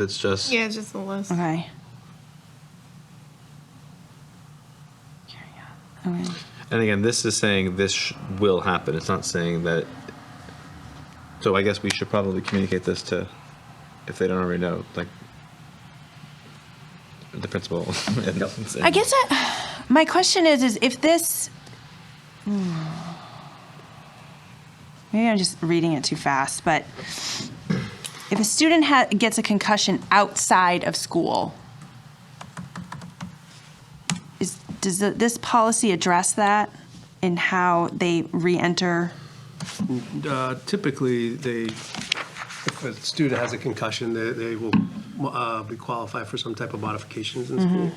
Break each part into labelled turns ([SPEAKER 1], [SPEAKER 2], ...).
[SPEAKER 1] It's just
[SPEAKER 2] Yeah, it's just a list.
[SPEAKER 3] Okay. Okay.
[SPEAKER 1] And again, this is saying this sh- will happen. It's not saying that. So I guess we should probably communicate this to, if they don't already know, like the principal. and- and-
[SPEAKER 3] I guess I, my question is, is if this, hmm. maybe I'm just reading it too fast, but if a student ha- gets a concussion outside of school, is, does th- this policy address that in how they re-enter?
[SPEAKER 4] Uh, Typically, they, if a student has a concussion, they, they will uh, be qualified for some type of modifications in school.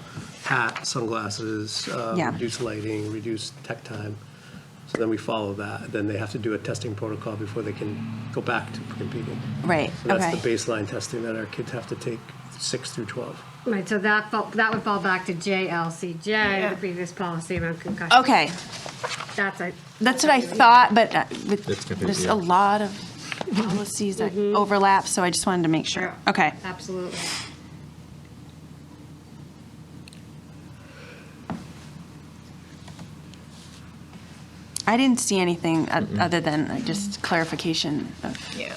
[SPEAKER 4] Hat, sunglasses, uh,
[SPEAKER 3] Mm-hmm. Yeah.
[SPEAKER 4] reduced lighting, reduced tech time. So then we follow that. Then they have to do a testing protocol before they can go back to competing.
[SPEAKER 3] Right,
[SPEAKER 4] So
[SPEAKER 3] okay.
[SPEAKER 4] that's the baseline testing that our kids have to take, six through 12.
[SPEAKER 5] Right, so that, fall- that would fall back to JLCJ,
[SPEAKER 2] Yeah.
[SPEAKER 5] the previous policy about concussion.
[SPEAKER 3] Okay,
[SPEAKER 5] That's a,
[SPEAKER 3] that's what I thought, but uh, with-
[SPEAKER 1] It's confusing,
[SPEAKER 3] there's
[SPEAKER 1] yeah.
[SPEAKER 3] a lot of policies that overlap, so I just wanted to make sure.
[SPEAKER 5] Yeah.
[SPEAKER 3] Okay.
[SPEAKER 5] absolutely.
[SPEAKER 3] I didn't see anything o- other than uh, just clarification of,
[SPEAKER 2] Yeah.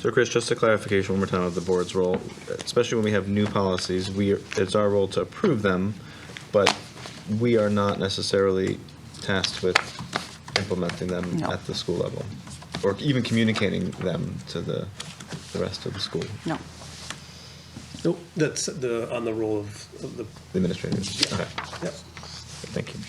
[SPEAKER 1] So Chris, just a clarification one more time of the board's role, especially when we have new policies, we, are- it's our role to approve them, but we are not necessarily tasked with implementing them
[SPEAKER 3] No.
[SPEAKER 1] at the school level, or even communicating them to the, the rest of the school
[SPEAKER 3] no.
[SPEAKER 4] Nope, that's the, on the role of of the,
[SPEAKER 1] administrators. Okay,
[SPEAKER 4] yeah.
[SPEAKER 1] thank you.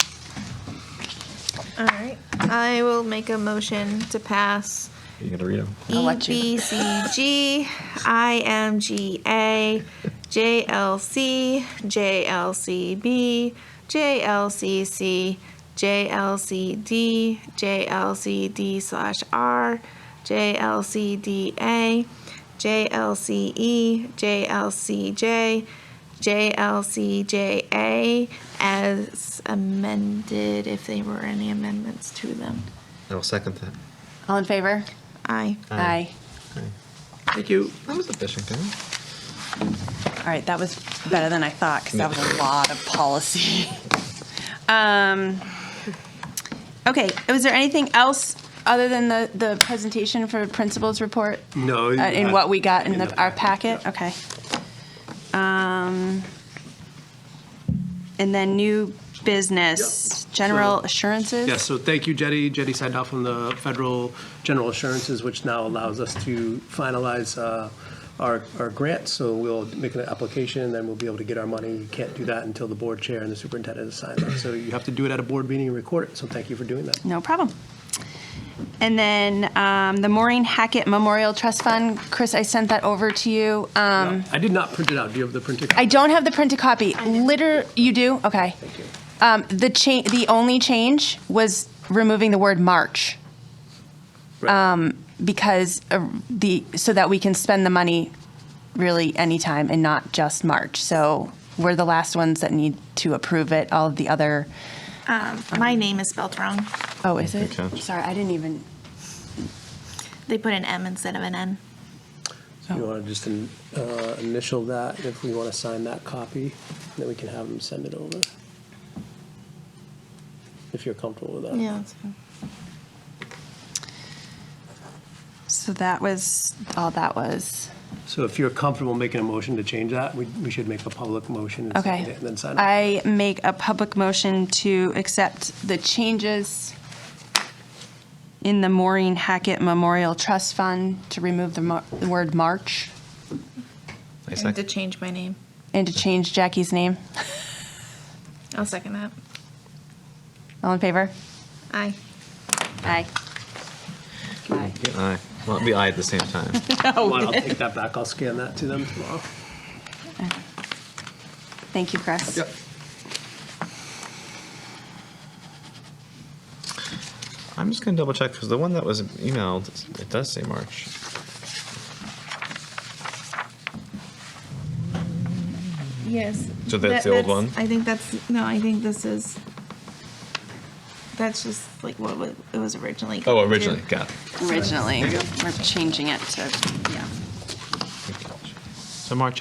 [SPEAKER 2] All right. I will make a motion to pass
[SPEAKER 1] You gonna read them?
[SPEAKER 3] I'll
[SPEAKER 2] E
[SPEAKER 3] let you.
[SPEAKER 2] B C G I M G A J L C J L C B J L C C J L C D J L C D slash R J L C D A J L C E J L C J J L C J A as amended if there were any amendments to them.
[SPEAKER 1] I'll second that.
[SPEAKER 3] All in favor?
[SPEAKER 2] Aye.
[SPEAKER 1] Aye.
[SPEAKER 4] Thank you.
[SPEAKER 1] That was efficient, didn't
[SPEAKER 3] All right, that was better than I thought, because that was a lot of policy. Um, Okay, was there anything else other than the, the presentation for principal's report?
[SPEAKER 4] No.
[SPEAKER 3] Uh, In what we got in
[SPEAKER 4] In
[SPEAKER 3] the,
[SPEAKER 4] the
[SPEAKER 3] our
[SPEAKER 4] packet,
[SPEAKER 3] packet? Okay. Um, And then new business,
[SPEAKER 4] Yep.
[SPEAKER 3] general
[SPEAKER 4] So-
[SPEAKER 3] assurances?
[SPEAKER 4] Yes, so thank you, Jetty. Jetty signed off on the federal general assurances, which now allows us to finalize uh, our, our grant. So we'll make an application, then we'll be able to get our money. You can't do that until the board chair and the superintendent has signed it. So you have to do it at a board meeting and record it. So thank you for doing that.
[SPEAKER 3] No problem. And then um, the Maureen Hackett Memorial Trust Fund, Chris, I sent that over to you. Um,
[SPEAKER 4] I did not print it out. Do you have the printed?
[SPEAKER 3] I don't have the printed copy. Liter, you do? Okay.
[SPEAKER 4] Thank you.
[SPEAKER 3] Um, the cha- the only change was removing the word March
[SPEAKER 4] Um.
[SPEAKER 3] because uh, the so that we can spend the money really anytime and not just March. So we're the last ones that need to approve it. All of the other
[SPEAKER 2] My name is spelled wrong.
[SPEAKER 3] oh, is it?
[SPEAKER 1] Good catch.
[SPEAKER 3] Sorry, I didn't even.
[SPEAKER 2] They put an M instead of an N.
[SPEAKER 4] You want to just in- uh, initial that if we want to sign that copy, then we can have them send it over. If you're comfortable with that.
[SPEAKER 3] So that was all that was.
[SPEAKER 4] So if you're comfortable making a motion to change that, we, we should make a public motion and second
[SPEAKER 3] Okay.
[SPEAKER 4] it and then sign it.
[SPEAKER 3] I make a public motion to accept the changes in the Maureen Hackett Memorial Trust Fund to remove the mar- the word March
[SPEAKER 1] I
[SPEAKER 2] I need to
[SPEAKER 1] second.
[SPEAKER 2] change my name.
[SPEAKER 3] and to change Jackie's name.
[SPEAKER 2] I'll second that.
[SPEAKER 3] All in favor?
[SPEAKER 2] Aye.
[SPEAKER 3] Aye. Aye.
[SPEAKER 1] Aye. Well, it'd be aye at the same time.
[SPEAKER 4] Come on, I'll take that back. I'll scan that to them tomorrow.
[SPEAKER 3] Thank you, Chris.
[SPEAKER 1] I'm just gonna double check, because the one that was emailed, it does say March.
[SPEAKER 2] Yes.
[SPEAKER 1] So that's the old one?
[SPEAKER 2] I think that's no. I think this is. That's just like what wa- it was originally.
[SPEAKER 1] Oh,
[SPEAKER 2] going to.
[SPEAKER 1] originally, got it.
[SPEAKER 3] Originally, we're changing it to, yeah.
[SPEAKER 1] Good catch. So March